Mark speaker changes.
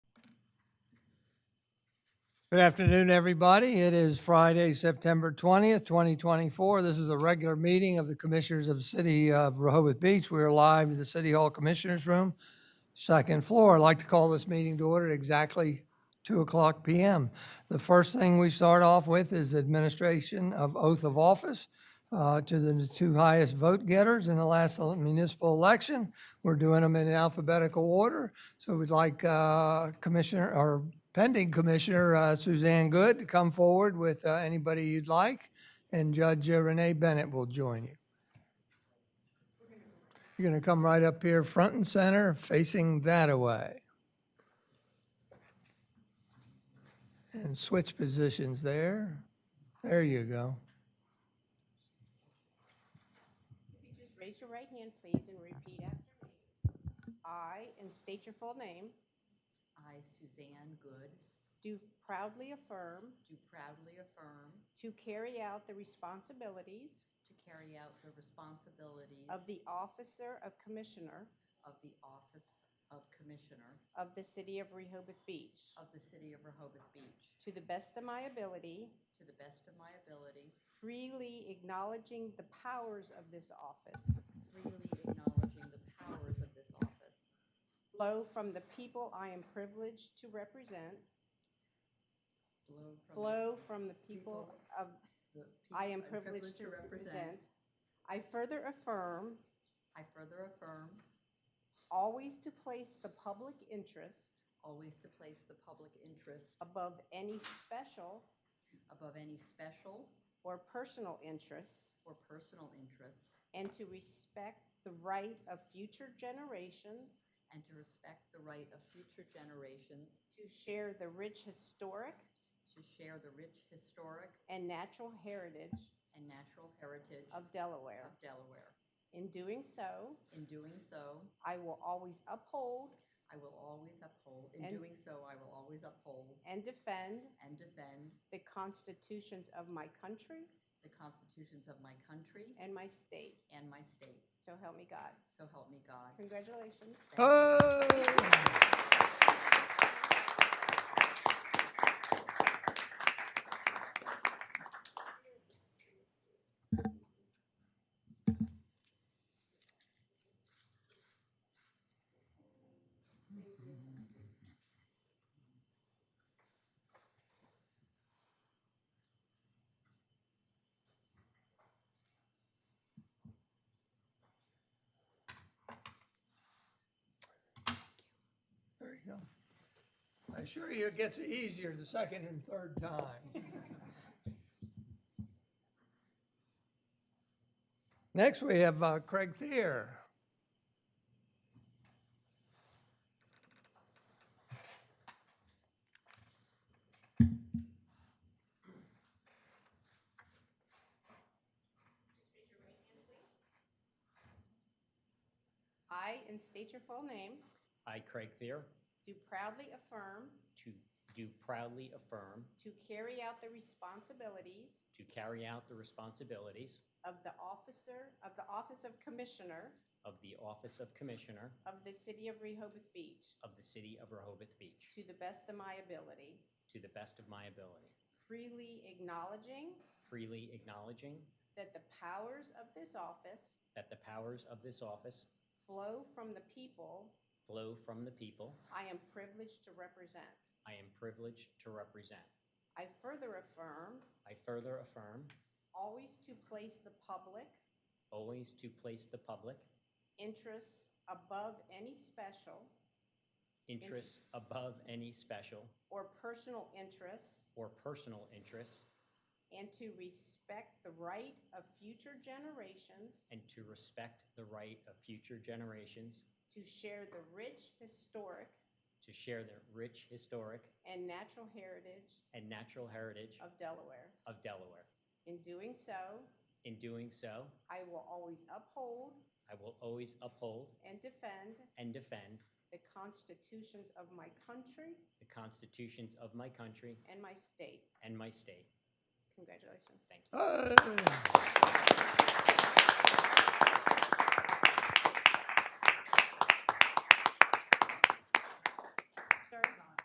Speaker 1: Good afternoon, everybody. It is Friday, September 20th, 2024. This is a regular meeting of the Commissioners of the City of Rehoboth Beach. We are live in the City Hall Commissioners Room, second floor. I'd like to call this meeting to order at exactly 2 o'clock PM. The first thing we start off with is administration of oath of office uh, to the two highest vote getters in the last ele- municipal election. We're doing them in alphabetical order. So we'd like uh, Commissioner, or pending Commissioner uh, Suzanne Good to come forward with uh, anybody you'd like, and Judge uh, Renee Bennett will join you. You're going to come right up here, front and center, facing that away. And switch positions there. There you go.
Speaker 2: If you just raise your right hand, please, and repeat after me. I, and state your full name,
Speaker 3: I, Suzanne Good,
Speaker 2: do proudly affirm
Speaker 3: do proudly affirm
Speaker 2: to carry out the responsibilities
Speaker 3: to carry out the responsibilities
Speaker 2: of the Officer of Commissioner
Speaker 3: of the Office of Commissioner
Speaker 2: of the City of Rehoboth Beach
Speaker 3: of the City of Rehoboth Beach
Speaker 2: to the best of my ability,
Speaker 3: to the best of my ability,
Speaker 2: freely acknowledging the powers of this office
Speaker 3: freely acknowledging the powers of this office
Speaker 2: flow from the people I am privileged to represent,
Speaker 3: flow from
Speaker 2: flow from the people
Speaker 3: people
Speaker 2: of
Speaker 3: the people
Speaker 2: I am
Speaker 3: I'm
Speaker 2: privileged to represent. I further affirm
Speaker 3: I further affirm
Speaker 2: always to place the public interest
Speaker 3: always to place the public interest
Speaker 2: above any special
Speaker 3: above any special
Speaker 2: or personal interests,
Speaker 3: or personal interest
Speaker 2: and to respect the right of future generations
Speaker 3: and to respect the right of future generations
Speaker 2: to share the rich historic
Speaker 3: to share the rich historic
Speaker 2: and natural heritage
Speaker 3: and natural heritage
Speaker 2: of Delaware.
Speaker 3: of Delaware.
Speaker 2: In doing so,
Speaker 3: In doing so,
Speaker 2: I will always uphold
Speaker 3: I will always uphold, in
Speaker 2: And-
Speaker 3: doing so, I will always uphold
Speaker 2: and defend
Speaker 3: and defend
Speaker 2: the constitutions of my country
Speaker 3: the constitutions of my country
Speaker 2: and my state.
Speaker 3: and my state.
Speaker 2: So help me God.
Speaker 3: So help me God.
Speaker 2: Congratulations.
Speaker 3: Thank you.
Speaker 1: Oh! There you go. I assure you, it gets easier the second and third times. Next, we have uh, Craig Thier.
Speaker 2: I, and state your full name,
Speaker 4: I, Craig Thayer,
Speaker 2: do proudly affirm
Speaker 4: to do proudly affirm
Speaker 2: to carry out the responsibilities
Speaker 4: to carry out the responsibilities
Speaker 2: of the officer, of the Office of Commissioner
Speaker 4: of the Office of Commissioner
Speaker 2: of the City of Rehoboth Beach
Speaker 4: of the City of Rehoboth Beach
Speaker 2: to the best of my ability,
Speaker 4: to the best of my ability,
Speaker 2: freely acknowledging
Speaker 4: freely acknowledging
Speaker 2: that the powers of this office
Speaker 4: that the powers of this office
Speaker 2: flow from the people
Speaker 4: flow from the people
Speaker 2: I am privileged to represent.
Speaker 4: I am privileged to represent.
Speaker 2: I further affirm
Speaker 4: I further affirm
Speaker 2: always to place the public
Speaker 4: always to place the public
Speaker 2: interests above any special
Speaker 4: interests above any special
Speaker 2: or personal interests
Speaker 4: or personal interests
Speaker 2: and to respect the right of future generations
Speaker 4: and to respect the right of future generations
Speaker 2: to share the rich historic
Speaker 4: to share their rich historic
Speaker 2: and natural heritage
Speaker 4: and natural heritage
Speaker 2: of Delaware.
Speaker 4: of Delaware.
Speaker 2: In doing so,
Speaker 4: In doing so,
Speaker 2: I will always uphold
Speaker 4: I will always uphold
Speaker 2: and defend
Speaker 4: and defend
Speaker 2: the constitutions of my country
Speaker 4: the constitutions of my country
Speaker 2: and my state.
Speaker 4: and my state.
Speaker 2: Congratulations.
Speaker 4: Thank you.
Speaker 1: Hey!